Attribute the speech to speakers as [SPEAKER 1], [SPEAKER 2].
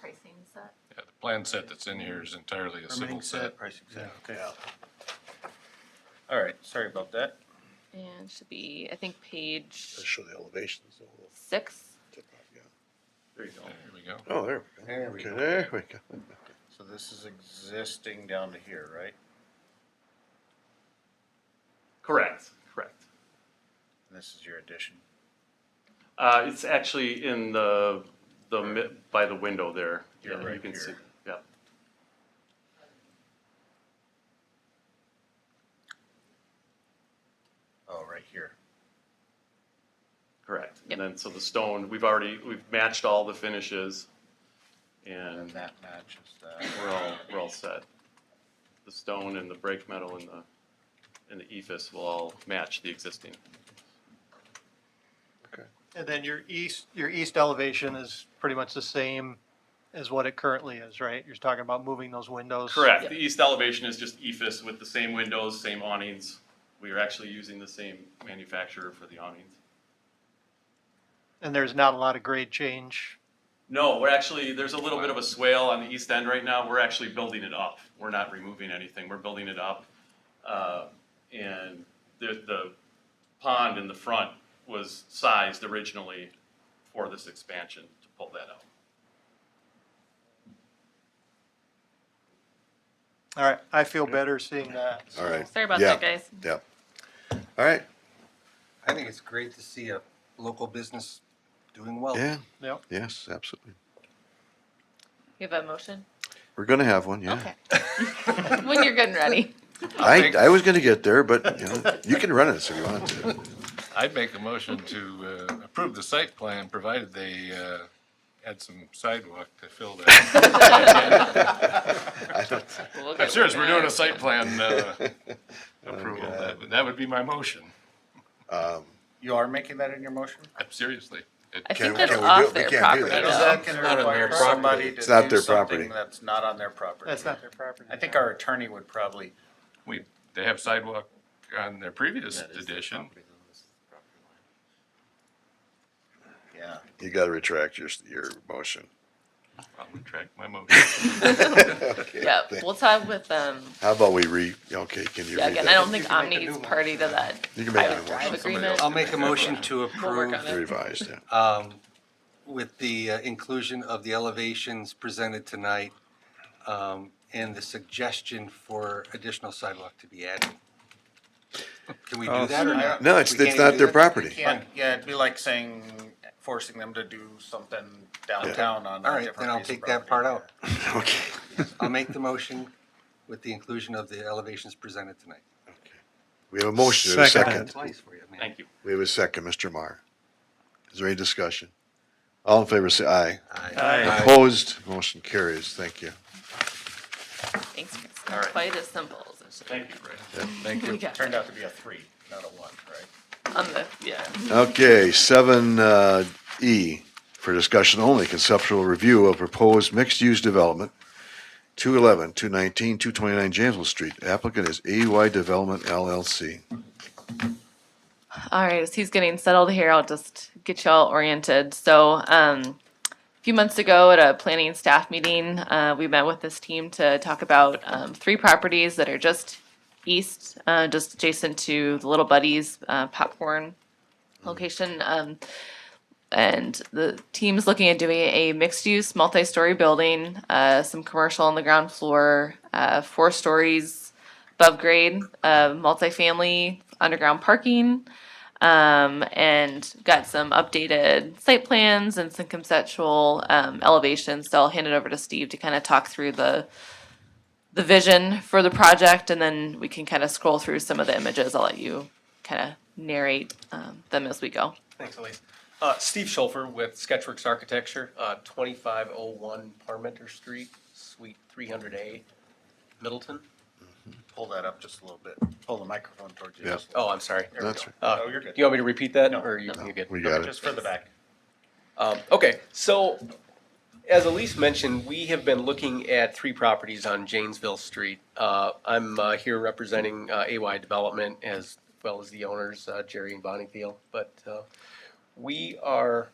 [SPEAKER 1] pricing set.
[SPEAKER 2] Yeah, the plan set that's in here is entirely a civil
[SPEAKER 3] Permitting
[SPEAKER 2] set.
[SPEAKER 3] set, pricing set, okay.
[SPEAKER 4] All right, sorry about that.
[SPEAKER 1] And should be, I think,
[SPEAKER 5] Let's
[SPEAKER 1] page
[SPEAKER 5] show the elevations. a little.
[SPEAKER 1] six.
[SPEAKER 4] There you go.
[SPEAKER 2] There we go.
[SPEAKER 5] Oh, there
[SPEAKER 3] There
[SPEAKER 5] we go. Okay, there we go.
[SPEAKER 4] So this is existing down to here, right?
[SPEAKER 6] Correct, correct.
[SPEAKER 4] And this is your addition.
[SPEAKER 6] Uh, it's actually in the, the, mi- by the window there.
[SPEAKER 4] You're
[SPEAKER 6] Yeah, you
[SPEAKER 4] right
[SPEAKER 6] can see.
[SPEAKER 4] here.
[SPEAKER 6] Yeah,
[SPEAKER 4] Oh, right here.
[SPEAKER 6] correct.
[SPEAKER 1] Yep.
[SPEAKER 6] And then, so the stone, we've already, we've matched all the finishes
[SPEAKER 4] And
[SPEAKER 6] and
[SPEAKER 4] that matches that.
[SPEAKER 6] we're all, we're all set. The stone and the break metal and the, and the E ephes will all match the existing.
[SPEAKER 7] And then your east, your east elevation is pretty much the same as what it currently is, right? You're talking about moving those windows.
[SPEAKER 6] Correct, the east elevation is just E ephes with the same windows, same awnings. We are actually using the same manufacturer for the awnings.
[SPEAKER 7] And there's not a lot of grade change.
[SPEAKER 6] No, we're actually, there's a little bit of a swale on the east end right now. We're actually building it up. We're not removing anything. We're building it up. Uh, And the, the pond in the front was sized originally for this expansion to pull that out.
[SPEAKER 7] All right, I feel better seeing that.
[SPEAKER 5] All right.
[SPEAKER 1] Sorry about
[SPEAKER 5] Yeah,
[SPEAKER 1] that, guys.
[SPEAKER 5] Yeah. All right,
[SPEAKER 3] I think it's great to see a local business doing well.
[SPEAKER 5] yeah,
[SPEAKER 7] Yep.
[SPEAKER 5] yes, absolutely.
[SPEAKER 1] You have a motion?
[SPEAKER 5] We're gonna have one, yeah.
[SPEAKER 1] Okay. When you're good and ready.
[SPEAKER 5] I, I was gonna get there, but, you know, you can run this if you want to.
[SPEAKER 2] I'd make a motion to uh, approve the site plan, provided they uh, add some sidewalk to fill that.
[SPEAKER 5] I don't-
[SPEAKER 2] I'm serious, we're doing a site plan uh, approval. That would- That would be my motion,
[SPEAKER 5] um,
[SPEAKER 4] You are making that in your motion?
[SPEAKER 2] I'm seriously. It-
[SPEAKER 1] I
[SPEAKER 5] Can-
[SPEAKER 1] think that's
[SPEAKER 5] can we do-
[SPEAKER 1] off
[SPEAKER 5] we
[SPEAKER 1] their
[SPEAKER 5] can't do
[SPEAKER 1] property
[SPEAKER 5] that.
[SPEAKER 4] Because
[SPEAKER 1] though.
[SPEAKER 4] that can
[SPEAKER 3] not on
[SPEAKER 4] require
[SPEAKER 3] their property.
[SPEAKER 4] somebody to
[SPEAKER 5] It's not
[SPEAKER 4] do
[SPEAKER 5] their property.
[SPEAKER 4] something that's not on their property.
[SPEAKER 7] That's not their property.
[SPEAKER 4] I think our attorney would probably.
[SPEAKER 2] We, they have sidewalk on their previous edition.
[SPEAKER 4] Yeah.
[SPEAKER 5] You gotta retract your, your motion.
[SPEAKER 2] I'll retract my motion.
[SPEAKER 5] Okay,
[SPEAKER 1] Yeah,
[SPEAKER 5] thank-
[SPEAKER 1] we'll talk with, um,
[SPEAKER 5] How about we re, okay, can you
[SPEAKER 1] yeah,
[SPEAKER 5] read
[SPEAKER 1] again, I don't
[SPEAKER 5] that?
[SPEAKER 1] think
[SPEAKER 3] You can make a
[SPEAKER 1] Omni
[SPEAKER 3] new
[SPEAKER 1] is
[SPEAKER 3] one.
[SPEAKER 1] party to that
[SPEAKER 5] You can make
[SPEAKER 1] private
[SPEAKER 5] another
[SPEAKER 1] drive
[SPEAKER 5] motion.
[SPEAKER 2] Somebody
[SPEAKER 1] agreement.
[SPEAKER 2] else.
[SPEAKER 3] I'll make a motion to
[SPEAKER 1] We'll work
[SPEAKER 3] approve
[SPEAKER 1] on it.
[SPEAKER 5] Revised, yeah.
[SPEAKER 3] um, with the uh, inclusion of the elevations presented tonight um, and the suggestion for additional sidewalk to be added. Can we do that or not?
[SPEAKER 5] Oh, No, it's,
[SPEAKER 3] We can't
[SPEAKER 5] it's not
[SPEAKER 3] do
[SPEAKER 5] their
[SPEAKER 3] that?
[SPEAKER 5] property.
[SPEAKER 4] Can't, yeah, it'd be like saying, forcing them to do something downtown on
[SPEAKER 3] All
[SPEAKER 4] a
[SPEAKER 3] right,
[SPEAKER 4] different
[SPEAKER 3] then I'll
[SPEAKER 4] piece of
[SPEAKER 3] take that
[SPEAKER 4] property.
[SPEAKER 3] part out.
[SPEAKER 5] Okay.
[SPEAKER 3] I'll make the motion with the inclusion of the elevations presented tonight.
[SPEAKER 5] We have a motion, and a second.
[SPEAKER 3] Twice for you, man.
[SPEAKER 6] Thank you.
[SPEAKER 5] We have a second, Mr. Marr. Is there any discussion? All in favor, say aye. Opposed, motion carries. Thank you.
[SPEAKER 1] Thanks, Chris.
[SPEAKER 6] All right.
[SPEAKER 1] Quite as simple as it
[SPEAKER 6] Thank you, Brad.
[SPEAKER 2] Thank you.
[SPEAKER 1] we got
[SPEAKER 4] Turned out to be a three, not a one, right?
[SPEAKER 1] on the, yeah.
[SPEAKER 5] Okay, seven, uh, E, for discussion only, conceptual review of proposed mixed-use development, 211, 219, 229 Janesville Street. Applicant is AY Development LLC.
[SPEAKER 1] All right, as he's getting settled here, I'll just get you all oriented. So, um, a few months ago at a planning staff meeting, uh, we met with this team to talk about um, three properties that are just east, uh, just adjacent to the Little Buddies uh, popcorn location. Um, and the team's looking at doing a mixed-use, multi-story building, uh, some commercial on the ground floor, uh, four stories above grade, uh, multifamily, underground parking um, and got some updated site plans and some conceptual um, elevations. So I'll hand it over to Steve to kind of talk through the the vision for the project, and then we can kind of scroll through some of the images. I'll let you kind of narrate um, them as we go.
[SPEAKER 8] Thanks, Elise. Uh, Steve Schulfer with Sketchworks Architecture, uh, twenty-five oh one Parmenter Street, Suite three hundred A, Middleton.
[SPEAKER 4] Pull that up just a little bit. Pull the microphone towards you.
[SPEAKER 5] Yeah.
[SPEAKER 4] just a little
[SPEAKER 8] Oh, I'm sorry.
[SPEAKER 4] bit. There we
[SPEAKER 5] That's
[SPEAKER 4] go.
[SPEAKER 8] Uh,
[SPEAKER 4] Oh, you're good.
[SPEAKER 8] You want me to repeat that,
[SPEAKER 4] No.
[SPEAKER 8] or you-
[SPEAKER 1] No.
[SPEAKER 8] you're good?
[SPEAKER 5] We got it.
[SPEAKER 4] Just for the back.
[SPEAKER 8] Um, okay, so as Elise mentioned, we have been looking at three properties on Janesville Street. Uh, I'm uh, here representing uh, AY Development as well as the owners, uh, Jerry and Bonnie Thiel. But uh, we are